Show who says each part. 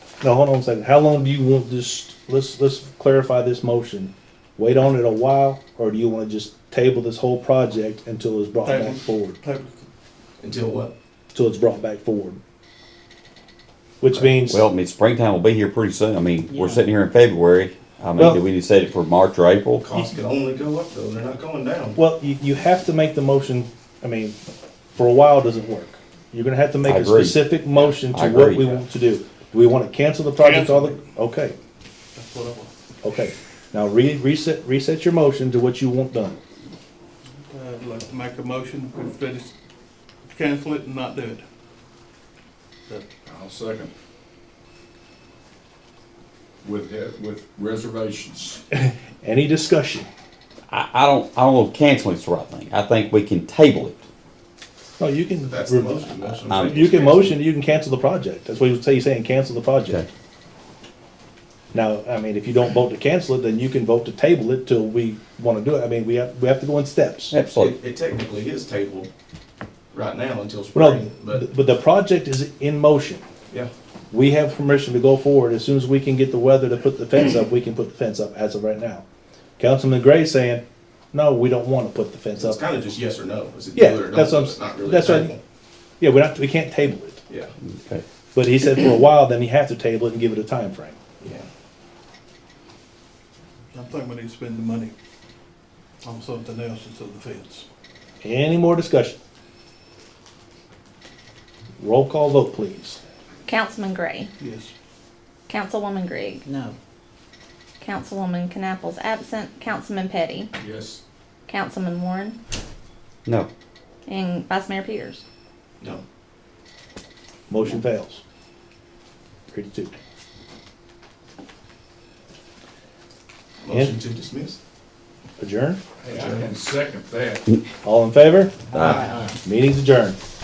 Speaker 1: No, hold on a second. How long do you want this, let's, let's clarify this motion. Wait on it a while, or do you wanna just table this whole project until it's brought back
Speaker 2: Table.
Speaker 1: forward?
Speaker 2: Table.
Speaker 3: Until what?
Speaker 1: Until it's brought back forward? Which means,
Speaker 4: Well, I mean, springtime will be here pretty soon. I mean, we're
Speaker 5: Yeah.
Speaker 4: sitting here in February. I mean,
Speaker 1: Well-
Speaker 4: do we need to set it for March or April?
Speaker 3: Costs could only go up though, they're not going down.
Speaker 1: well, you, you have to make the motion, I mean, for a while doesn't work. You're gonna have to make
Speaker 4: I
Speaker 1: a
Speaker 4: agree.
Speaker 1: specific motion
Speaker 4: I
Speaker 1: to what
Speaker 4: agree.
Speaker 1: we want to do. Do we wanna cancel the project all the,
Speaker 2: Cancel
Speaker 1: okay,
Speaker 2: That's what I want.
Speaker 1: okay. Now re, reset, reset your motion to what you want done.
Speaker 2: Uh, I'd like to make a motion to finish, cancel it and not do it.
Speaker 6: I'll second. With, he- with reservations.
Speaker 1: Any discussion?
Speaker 4: I, I don't, I don't know if canceling's the right thing. I think we can table it.
Speaker 1: No, you can.
Speaker 3: That's the
Speaker 1: re-
Speaker 3: motion. Motion
Speaker 4: Um,
Speaker 3: to
Speaker 1: You can motion, you can cancel the project. That's what you say, you're saying cancel the
Speaker 4: Okay.
Speaker 1: project. Now, I mean, if you don't vote to cancel it, then you can vote to table it till we wanna do it. I mean, we have, we have to go in steps.
Speaker 4: Absolutely.
Speaker 3: It, it technically is tabled right now until
Speaker 1: Well,
Speaker 3: spring,
Speaker 1: no,
Speaker 3: but
Speaker 1: th- but the project is in motion.
Speaker 3: yeah,
Speaker 1: We have permission to go forward. As soon as we can get the weather to put the fence up, we can put the fence up as of right now. Councilman Gray saying, no, we don't wanna put the fence
Speaker 3: so it's
Speaker 1: up.
Speaker 3: kinda just yes or no, is it
Speaker 1: Yeah,
Speaker 3: do it or don't
Speaker 1: that's what
Speaker 3: do
Speaker 1: I'm
Speaker 3: it,
Speaker 1: s-
Speaker 3: not really
Speaker 1: that's what-
Speaker 3: table.
Speaker 1: Yeah, we're not, we can't table it.
Speaker 3: Yeah,
Speaker 4: Okay.
Speaker 1: But he said for a while, then you have to table it and give it a time frame.
Speaker 3: yeah.
Speaker 2: I think we need to spend the money on something else instead of the fence.
Speaker 1: Any more discussion? Roll call vote, please.
Speaker 7: Councilman Gray,
Speaker 2: Yes.
Speaker 7: Councilwoman Grigg,
Speaker 5: No.
Speaker 7: Councilwoman Knapple's absent, Councilman Petty,
Speaker 6: Yes.
Speaker 7: Councilman Warren,
Speaker 4: No.
Speaker 7: and Vice Mayor Peters.
Speaker 3: No,
Speaker 1: Motion fails. Three to two.
Speaker 3: motion to dismiss?
Speaker 1: Adjourn?
Speaker 6: And second that.
Speaker 1: All in favor?
Speaker 4: Aye.
Speaker 1: Meeting's adjourned.